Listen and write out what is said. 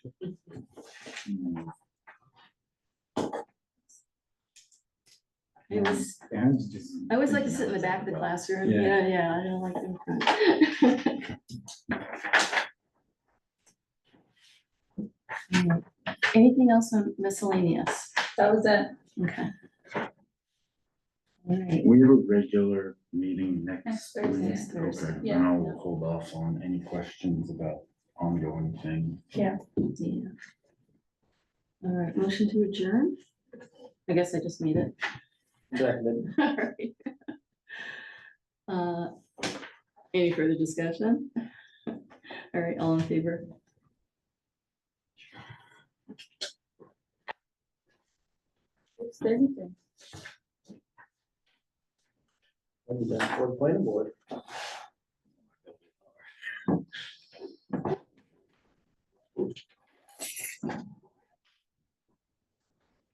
Mm-hmm. It was, Yeah, it's just- I always like to sit in the back of the classroom. Yeah. Yeah, yeah, I don't like in front. Anything else on miscellaneous? That was it. Okay. All right, We have a regular meeting next Next Thursday. week. Next Thursday, Okay, And yeah. I'll hold off on any questions about ongoing things. yeah. All right, motion to adjourn? I guess I just made it. All right. Uh, Any further discussion? All right, all in favor? It's Thursday. When you done for the planning board.